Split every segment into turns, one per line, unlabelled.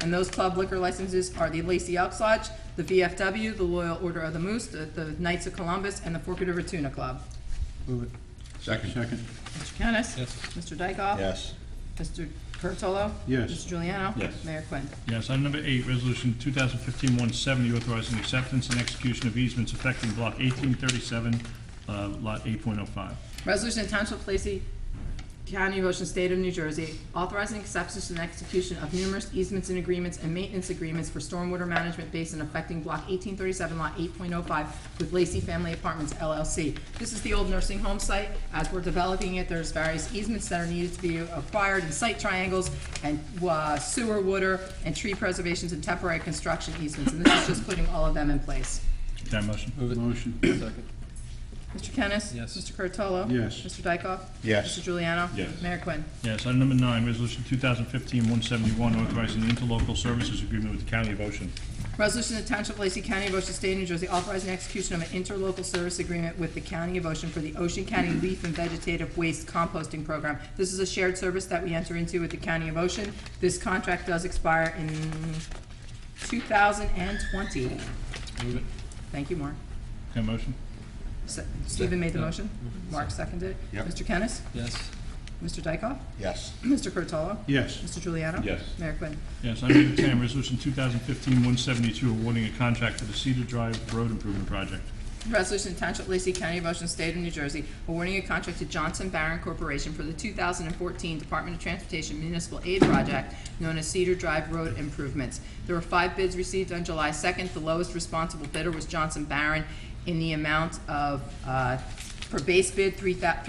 And those club liquor licenses are the Lacey Elks Lodge, the VFW, the Loyal Order of the Moose, the- the Knights of Columbus, and the Forked River Tuna Club.
Move it.
Second.
Second.
Mr. Kennis?
Yes.
Mr. Dykoff?
Yes.
Mr. Curatolo?
Yes.
Mr. Juliano?
Yes.
Mayor Quinn.
Yes, item number eight, resolution 2015-170, authorizing acceptance and execution of easements affecting block 1837, uh, lot 8.05.
Resolution to Township of Lacey County, Ocean State of New Jersey, authorizing acceptance and execution of numerous easements and agreements and maintenance agreements for stormwater management basin affecting block eighteen thirty-seven, lot eight point oh five with Lacey Family Apartments LLC. This is the old nursing home site. As we're developing it, there's various easements that are needed to be acquired and site triangles and uh, sewer, water, and tree preservations and temporary construction easements. And this is just putting all of them in place.
Is there a motion?
Motion.
Second.
Mr. Kennis?
Yes.
Mr. Curatolo?
Yes.
Mr. Dykoff?
Yes.
Mr. Juliano?
Yes.
Mayor Quinn.
Yes, item number nine, resolution 2015-171, authorizing the interlocal services agreement with the County of Ocean.
Resolution to Township of Lacey County, Ocean State, New Jersey, authorizing execution of an interlocal service agreement with the County of Ocean for the Ocean County
Mm-hmm.
Leaf and Vegetative Waste Composting Program. This is a shared service that we enter into with the County of Ocean. This contract does expire in two thousand and twenty.
Move it.
Thank you, Mark.
Is there a motion?
Se- Stephen made the motion. Mark seconded it.
Yep.
Mr. Kennis?
Yes.
Mr. Dykoff?
Yes.
Mr. Curatolo?
Yes.
Mr. Juliano?
Yes.
Mayor Quinn.
Yes, item number 10, resolution 2015-172, awarding a contract for the Cedar Drive Road Improvement Project.
Resolution to Township of Lacey County, of Ocean State of New Jersey, awarding a contract to Johnson Barron Corporation for the 2014 Department of Transportation Municipal Aid Project known as Cedar Drive Road Improvements. There were five bids received on July 2nd. The lowest responsible bidder was Johnson Barron in the amount of, uh, for base bid, three thou-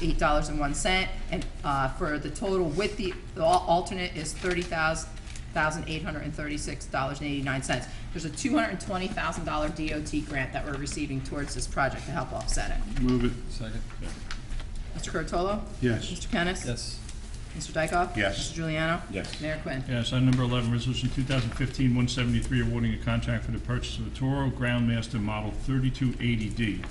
$376,788.01, and uh, for the total with the the al- alternate is 30000 thousand eight hundred and thirty-six dollars and eighty-nine cents. There's a two hundred and twenty thousand dollar DOT grant that we're receiving towards this project to help offset it.
Move it.
Second.
Mr. Curatolo?
Yes.
Mr. Kennis?
Yes.
Mr. Dykoff?
Yes.
Mr. Juliano?
Yes.
Mayor Quinn.
Yes, item number 11, resolution 2015-173, awarding a contract for the purchase of a Toro Groundmaster Model 3280D.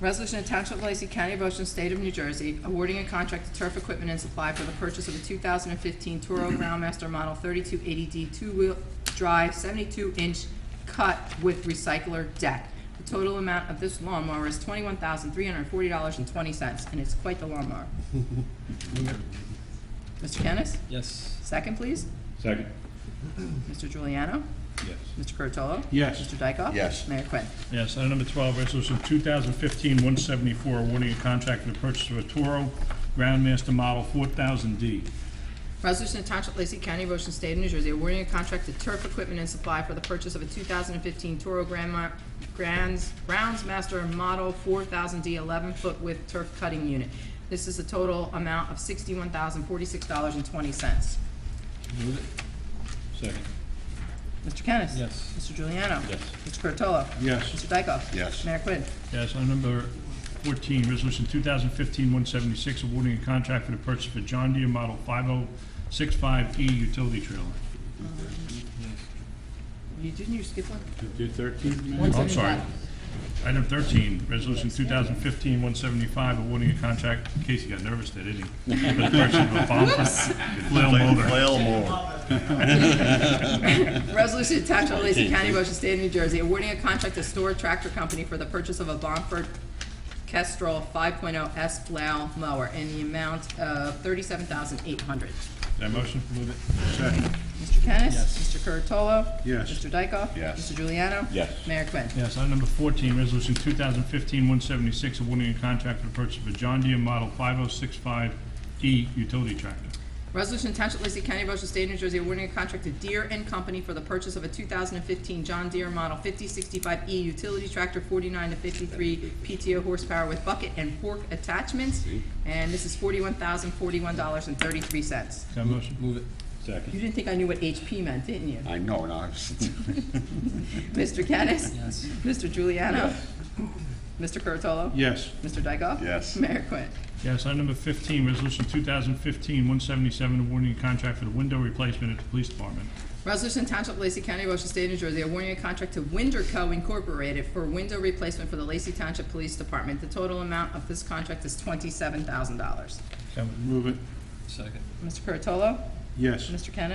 Resolution to Township of Lacey County, of Ocean State of New Jersey, awarding a contract to turf equipment and supply for the purchase of a 2015 Toro Groundmaster Model 3280D two-wheel drive 72-inch cut with recycler deck. The total amount of this lawnmower is $21,340.20, and it's quite the lawnmower. Mr. Kennis?
Yes.
Second, please.
Second.
Mr. Juliano?
Yes.
Mr. Curatolo?
Yes.
Mr. Dykoff?
Yes.
Mayor Quinn.
Yes, item number 12, resolution 2015-174, awarding a contract for the purchase of a Toro Groundmaster Model 4000D.
Resolution to Township of Lacey County, Ocean State of New Jersey, awarding a contract to Turf Equipment and Supply for the purchase of a 2015 Toro Grandma, Grands, Groundsmaster Model 4000D 11-foot width turf cutting unit. This is a total amount of $61,046.20.
Move it.
Second.
Mr. Kennis?
Yes.
Mr. Juliano?
Yes.
Mr. Curatolo?
Yes.
Mr. Dykoff?
Yes.
Mayor Quinn.
Yes, item number 14, resolution 2015-176, awarding a contract for the purchase of a John Deere Model 5065E E utility trailer. Oh,
You, didn't you skip one?
Do thirteen,
Oh, I'm sorry. Item 13, resolution 2015-175, awarding a contract, Casey got nervous there, didn't he? For the purchase of a bomb flail motor.
more.
Resolution to Township of Lacey County, Ocean State of New Jersey, awarding a contract to Store Tractor Company for the purchase of a Bonford Kestrel 5.0 S plow mower in the amount of thirty-seven thousand eight hundred.
Is there a motion? Move it.
second.
Mr. Kennis?
Yes.
Mr. Curatolo?
Yes.
Mr. Dykoff?
Yes.
Mr. Juliano?
Yes.
Mayor Quinn.
Yes, item number 14, resolution 2015-176, awarding a contract for the purchase of a John Deere Model 5065E E utility tractor.
Resolution to Township of Lacey County, Ocean State, New Jersey, awarding a contract to Deere and Company for the purchase of a 2015 John Deere Model 5065E utility tractor, 49 to 53 PTO horsepower with bucket and fork attachments, and this is $41,041.33.
Is there a motion?
Move it.
You
Second.
didn't think I knew what HP meant, didn't you?
I know, and I was,
Mr. Kennis?
Yes.
Mr. Juliano? Mr. Curatolo?
Yes.
Mr. Dykoff?
Yes.
Mayor Quinn.
Yes, item number 15, resolution 2015-177, awarding a contract for the window replacement at the police department.
Resolution Township of Lacey County, Ocean State, New Jersey, awarding a contract to Winder Co. Incorporated for window replacement for the Lacey Township Police Department. The total amount of this contract is twenty-seven thousand dollars.
Is there a motion?
Move it.
Second.
Mr. Curatolo?
Yes.
Mr. Kennis?